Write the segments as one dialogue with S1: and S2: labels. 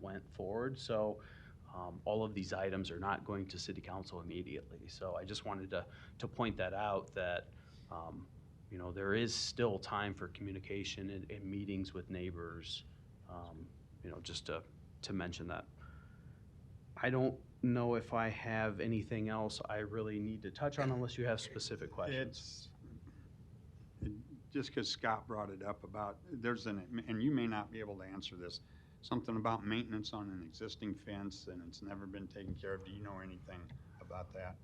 S1: went forward. So um, all of these items are not going to city council immediately. So I just wanted to, to point that out, that, um, you know, there is still time for communication and, and meetings with neighbors, um, you know, just to, to mention that. I don't know if I have anything else I really need to touch on unless you have specific questions.
S2: It's, it- just because Scott brought it up about, there's an, and you may not be able to answer this, something about maintenance on an existing fence and it's never been taken care of. Do you know anything about that?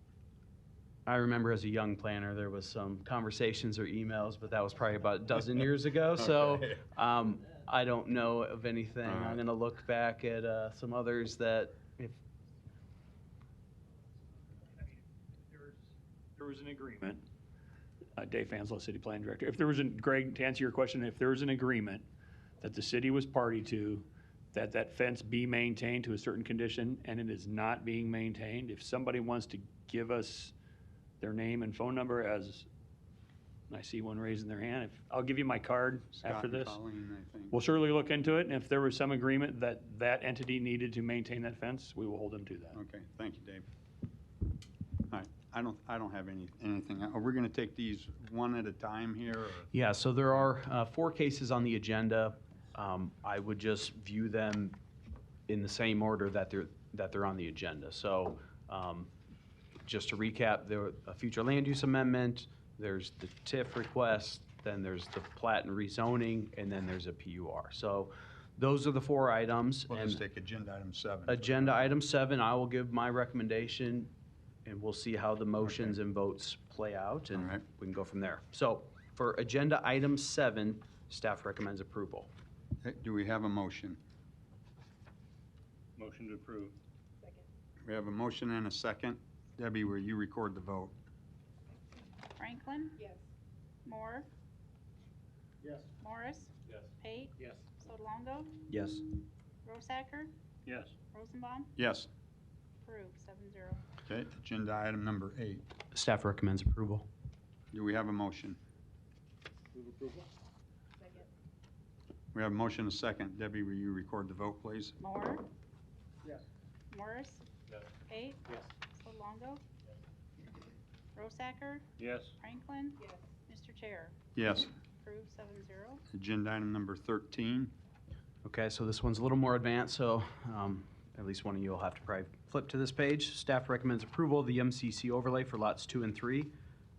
S1: I remember as a young planner, there was some conversations or emails, but that was probably about a dozen years ago. So
S2: Okay.
S1: um, I don't know of anything.
S2: All
S1: I'm
S2: right.
S1: going to look back at uh, some others that if
S3: There was an agreement. Uh, Dave Fanslow, City Plan Director. If there was, an Greg, to answer your question, if there was an agreement that the city was party to, that that fence be maintained to a certain condition, and it is not being maintained, if somebody wants to give us their name and phone number as, and I see one raising their hand, if, I'll give you my card
S2: Scott
S3: after
S2: and
S3: this.
S2: Colleen, I think.
S3: We'll surely look into it, and if there was some agreement that that entity needed to maintain that fence, we will hold them to that.
S2: Okay, thank you, Dave. All right, I don't, I don't have any, anything. Are we going to take these one at a time here? or-
S1: Yeah, so there are uh, four cases on the agenda. Um, I would just view them in the same order that they're, that they're on the agenda. So um, just to recap, there were a future land use amendment, there's the TIF request, then there's the plat and rezoning, and then there's a PUR. So those are the four items.
S2: We'll
S1: and-
S2: just take agenda item seven.
S1: Agenda item seven, I will give my recommendation, and we'll see how the motions and votes play out, and
S2: All right.
S1: we can go from there. So for agenda item seven, staff recommends approval.
S2: Okay, Do we have a motion?
S3: Motion to approve.
S2: We have a motion and a second. Debbie, will you record the vote?
S4: Franklin?
S5: Yes.
S4: Moore?
S3: Yes.
S4: Morris?
S3: Yes.
S4: Pate?
S3: Yes.
S4: Sodolongo?
S1: Yes.
S4: Rosacker?
S3: Yes.
S4: Rosenbaum?
S2: Yes.
S4: Approved, seven zero.
S2: Okay, agenda item number eight.
S1: Staff recommends approval.
S2: Do we have a motion?
S3: Move approval.
S5: Second.
S2: We have a motion and a second. Debbie, will you record the vote, please?
S4: Moore?
S3: Yes.
S4: Morris?
S3: Yes.
S4: Pate?
S3: Yes.
S4: Sodolongo? Rosacker?
S3: Yes.
S4: Franklin?
S5: Yes.
S4: Mr. Chair?
S2: Yes.
S4: Approved, seven zero.
S2: Agenda item number 13.
S1: Okay, so this one's a little more advanced, so um, at least one of you will have to probably flip to this page. Staff recommends approval of the MCC overlay for lots two and three.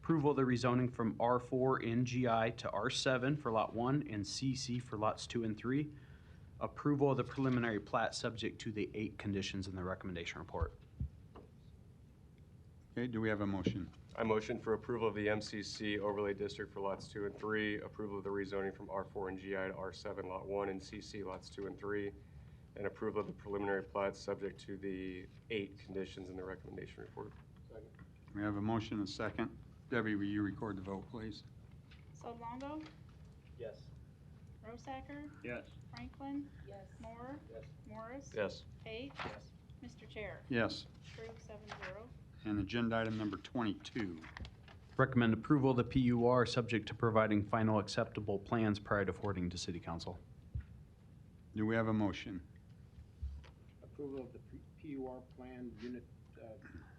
S1: Approval of the rezoning from R4 in GI to R7 for lot one and CC for lots two and three. Approval of the preliminary plat subject to the eight conditions in the recommendation report.
S2: Okay, do we have a motion?
S6: I motion for approval of the MCC overlay district for lots two and three, approval of the rezoning from R4 and GI to R7 Lot 1 and CC Lots 2 and 3, and approval of the preliminary plat subject to the eight conditions in the recommendation report.
S2: We have a motion and a second. Debbie, will you record the vote, please?
S4: Sodolongo?
S1: Yes.
S4: Rosacker?
S3: Yes.
S4: Franklin?
S5: Yes.
S4: Moore?
S3: Yes.
S4: Morris?
S6: Yes.
S4: Pate?
S3: Yes.
S4: Mr. Chair?
S2: Yes.
S4: Approved, seven zero.
S2: And agenda item number 22.
S1: Recommend approval of the PUR subject to providing final acceptable plans prior to forwarding to city council.
S2: Do we have a motion?
S7: approval of the P- PUR plan unit uh,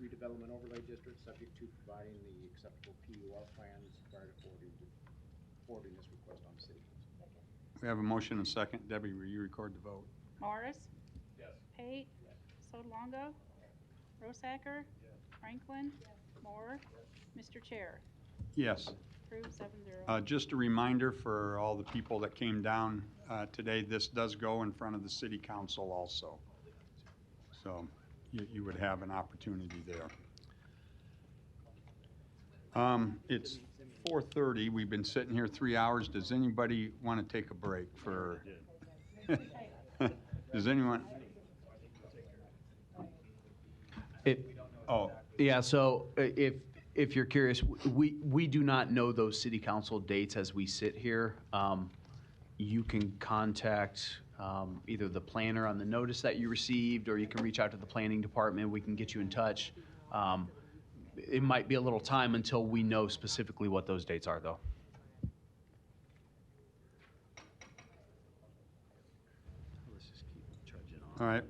S7: redevelopment overlay district, subject to providing the acceptable PUR plans prior to forwarding, forwarding this request on city council.
S2: We have a motion and a second. Debbie, will you record the vote?
S4: Morris?
S3: Yes.
S4: Pate? Sodolongo? Rosacker? Franklin? Moore? Mr. Chair?
S2: Yes.
S4: Approved seven zero.
S2: Uh, Just a reminder for all the people that came down uh, today, this does go in front of the city council also. So you you would have an opportunity there. Um, It's 4:30, we've been sitting here three hours. Does anybody want to take a break for? Does anyone? Oh,
S1: Yeah, so uh, if, if you're curious, w- we, we do not know those city council dates as we sit here. Um, You can contact um, either the planner on the notice that you received, or you can reach out to the planning department, we can get you in touch. Um, It might be a little time until we know specifically what those dates are, though.
S2: All right,